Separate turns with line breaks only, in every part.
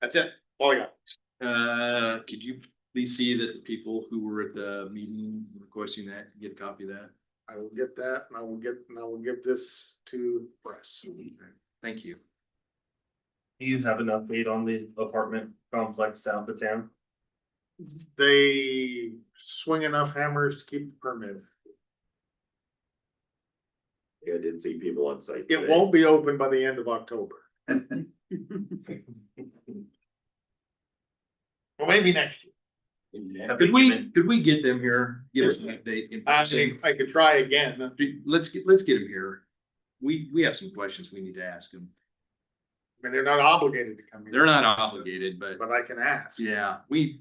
That's it, all I got.
Uh, could you please see that the people who were at the meeting requesting that, get a copy of that?
I will get that and I will get, and I will give this to press.
Thank you.
Do you have an update on the apartment complex south of town?
They swing enough hammers to keep the permit.
I did see people on site.
It
today.
won't be open by the end of October. Well, maybe next year.
Could we, could we get them here? Give us an update. in
Actually,
person?
I could try again.
Let's get, let's get them here. We, we have some questions we need to ask them.
I mean, they're not obligated to come in.
They're not obligated, but
But I can ask.
yeah, we,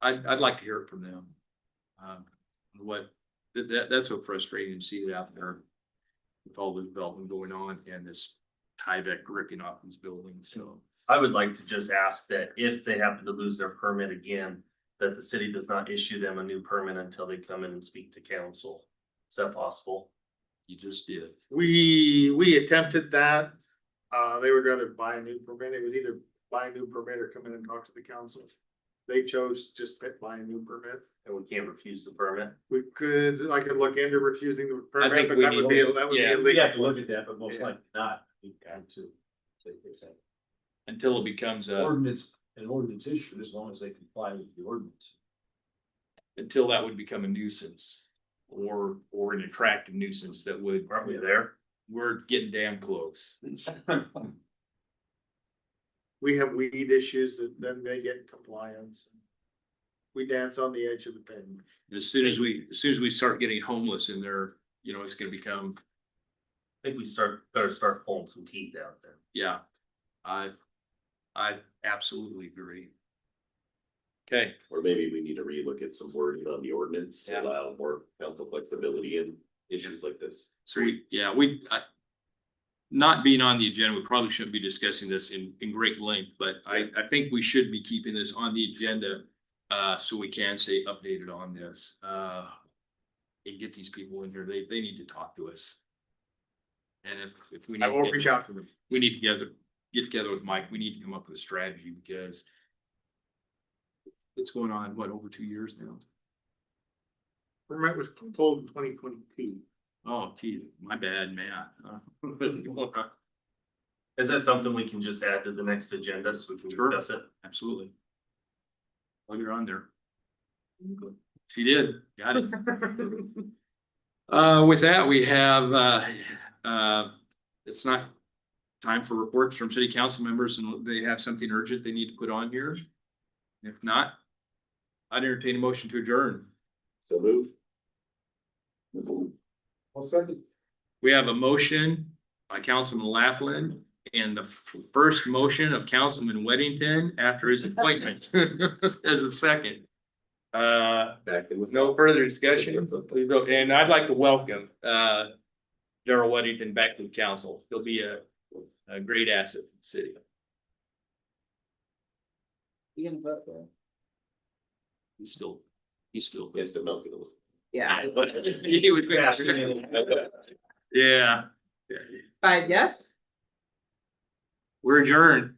I'd, I'd like to hear it from them. Um, what, that, that, that's so frustrating to see it out there with all the development going on and this Tyvek ripping off these buildings, so.
I would like to just ask that if they happen to lose their permit again, that the city does not issue them a new permit until they come in and speak to council. Is that possible?
You just did.
We, we attempted that. Uh, they would rather buy a new permit. It was either buy a new permit or come in and talk to the council. They chose just to buy a new permit.
And we can't refuse the permit.
We could, I could look into refusing the
I
permit,
think
but
we
that would be,
need-
that would be
yeah,
We
illegal.
have to look at that, but most
Yeah.
likely not. We've got to. like they said,
Until it becomes a,
Ordinance, an ordinance issue, as long as they comply with the ordinance.
until that would become a nuisance. Or, or an attractive nuisance that would,
Aren't we there?
we're getting damn close.
We have weed issues that then they get compliance. We dance on the edge of the pen.
And As soon as we, as soon as we start getting homeless in there, you know, it's gonna become,
I think we start, better start pulling some teeth out there.
yeah. I, I absolutely agree. Okay,
Or maybe we need to relook at some wording on the ordinance
Yeah.
to allow more council flexibility in issues like this.
so we, yeah, we, I. Not being on the agenda, we probably shouldn't be discussing this in, in great length, but I, I think we should be keeping this on the agenda. Uh, so we can stay updated on this, uh. And get these people in here, they, they need to talk to us. And if, if we.
I
need
will
to-
reach out to them.
we need to get, get together with Mike, we need to come up with a strategy because. It's going on, what, over two years now?
Permit was pulled in twenty twenty two.
Oh, geez, my bad, man. Uh,
Is that something we can just add to the next agenda so we can
Sure.
discuss it?
Absolutely. Well, you're on there. She did, got it. Uh, with that, we have, uh, uh, it's not time for reports from city council members and they have something urgent they need to put on here. If not, I'd entertain a motion to adjourn.
So move.
Well, second.
We have a motion by Councilman Laughlin and the f- first motion of Councilman Weddington after his appointment as a second. Uh,
Back in
with no further discussion, please vote. and I'd like to welcome uh Darrell Weddington back to the council. He'll be a a great asset to the city. He's still, he's still.
Yes, they're not gonna.
Yeah,
He was. Yeah,
five yes.
we're adjourned.